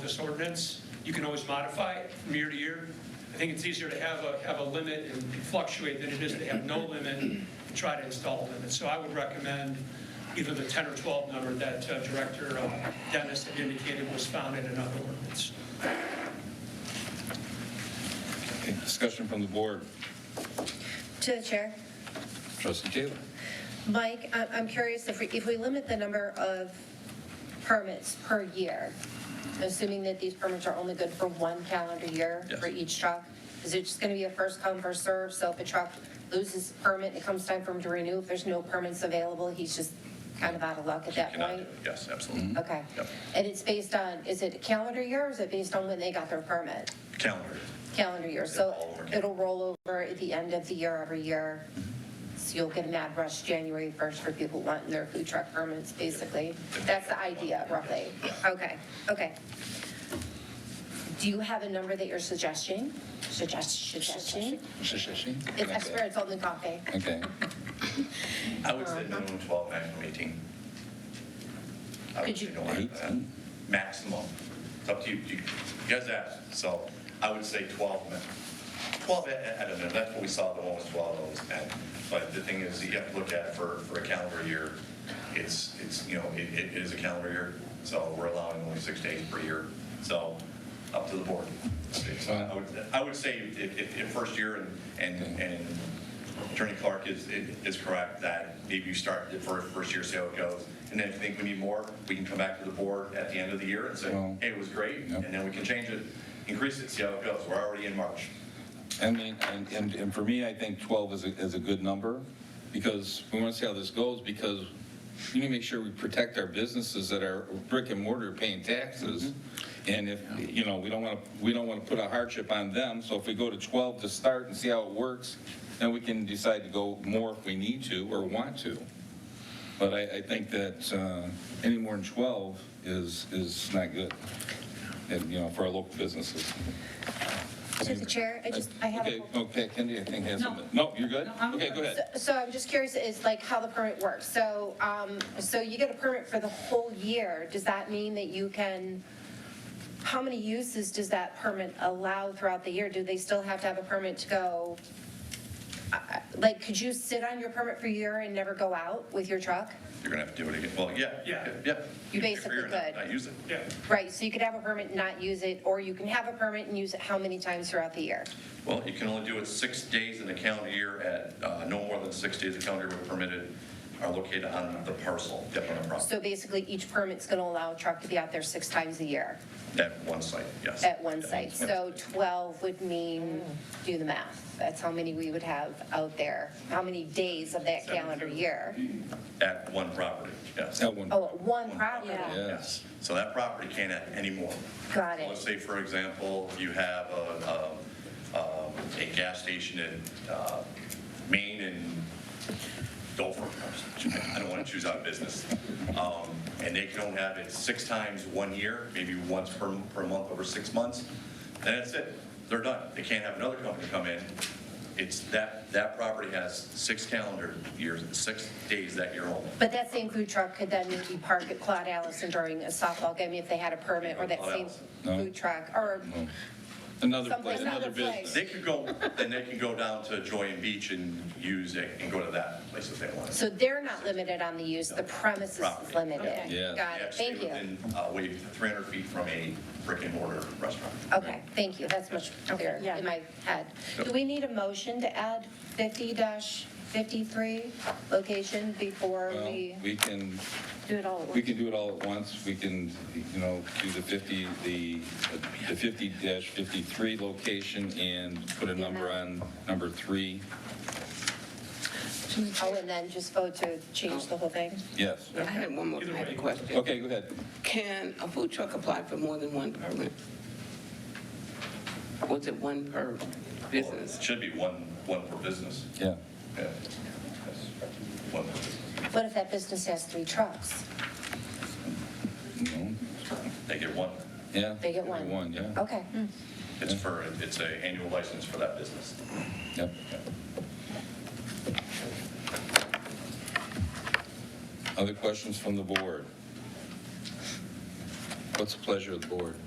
this ordinance. You can always modify it from year to year. I think it's easier to have a, have a limit and fluctuate than it is to have no limit and try to install limits. So I would recommend either the 10 or 12 number that uh, Director uh, Dennis had indicated was found in another ordinance. Okay, Discussion from the board. To the chair. Trustee Taylor? Mike, I- I'm curious if we, if we limit the number of permits per year, assuming that these permits are only good for one calendar year Yes. for each truck, is it just going to be a first come, first serve? So if a truck loses a permit and it comes time for him to renew, if there's no permits available, he's just kind of out of luck at that Mm-hmm. Cannot do point? it. Yes, absolutely. Okay. Yep. And it's based on, is it a calendar year or is it based on when they got their permit? Calendar. calendar year, so all over. it'll roll over at the end of the year every year. So you'll get a mad rush January 1st for people wanting their food truck permits, basically. That's the idea roughly. Okay, okay. Do you have a number that you're suggesting? Suggest, suggesting? It's I swear it's only coffee. Okay, I would say Uh-huh. minimum 12, maximum 18. I would Could say you- no higher than that. Eighteen. Maximum. It's up to you. You you guys asked, so I would say 12 minimum. 12 at- at at a minimum. That's what we saw, the one was 12, that was 10. But the thing is, you have to look at for, for a calendar year, it's, it's, you know, it, it is a calendar year. So we're allowing only six days per year. So up to the board. So I would, I would say if, if, if first year and, and, and Attorney Clark is, is correct that maybe you start the first, first year, see how it goes. And then if you think we need more, we can come back to the board at the end of the year and say, Well- hey, it was great, Yep. and then we can change it, increase it, see how it goes. We're already in March. I mean, and, and, and for me, I think 12 is a, is a good number, because we want to see how this goes, because we need to make sure we protect our businesses that are brick and mortar paying taxes. Mm-hmm. And if, you know, we don't want to, we don't want to put a hardship on them, so if we go to 12 to start and see how it works, then we can decide to go more if we need to or want to. But I, I think that, uh, any more than 12 is, is not good, and, you know, for our local businesses. To the chair, I just, I have a Okay, okay, Kendi, I think has No. something. No, you're good? No, I'm Okay, good. go ahead. So I'm just curious, is like how the permit works. So, um, so you get a permit for the whole year. Does that mean that you can, how many uses does that permit allow throughout the year? Do they still have to have a permit to go? I- I- Like, could you sit on your permit for a year and never go out with your truck? You're gonna have to do it again. Well, yeah, yeah, yeah. You basically You're not- could. Not use it. Yeah, Right, so you could have a permit and not use it, or you can have a permit and use it how many times throughout the year? Well, you can only do it six days in a calendar year at, uh, no more than six days a calendar year permitted are located on the parcel, yep, on the property, So basically, each permit's gonna allow a truck to be out there six times a year. at one site, yes. at one site. Yep. So 12 would mean, do the math, that's how many we would have out there, how many days of that calendar year? At one property, yes. That one. Oh, one property, Yeah. Yes. Yes, so that property can't add any more. Got it. Let's say, for example, you have a, um, um, a gas station in uh, Maine and Dover, I don't want to choose out of business, Um, and they can only have it six times one year, maybe once per, per month over six months, then that's it, they're done. They can't have another company come in. It's that, that property has six calendar years, six days that year only. but that same food truck could then maybe park at Claude Allison during a softball game if they had a permit, or that Claude same Allison. No. food truck, or, Oh. Another Someplace place, another another place. business. They could go, then they can go down to Joy and Beach and use it and go to that place if they want. so they're not limited on the use, the premises is Property. limited. Okay. Yeah. Got it, thank you. And wave 300 feet from a brick and mortar restaurant. Okay, thank you, that's much clearer yeah. in my head. Do we need a motion to add 50-53 location before Well, we? we can, Do it all at we once. can do it all at once. We can, you know, do the 50, the, the 50 53 location and put a number on number three. Oh, and then just vote to change the whole thing? Yes. I had one more type of question. Okay, go ahead. Can a food truck apply for more than one permit? Was it one per It business? should be one, one per business. Yeah. Yeah. One per business. What if that business has three trucks? No. They get one. Yeah. They get one? Oh. One, yeah. Okay, It's for, it's a annual license for that business. Yep. Other questions from the board? What's the pleasure of the board?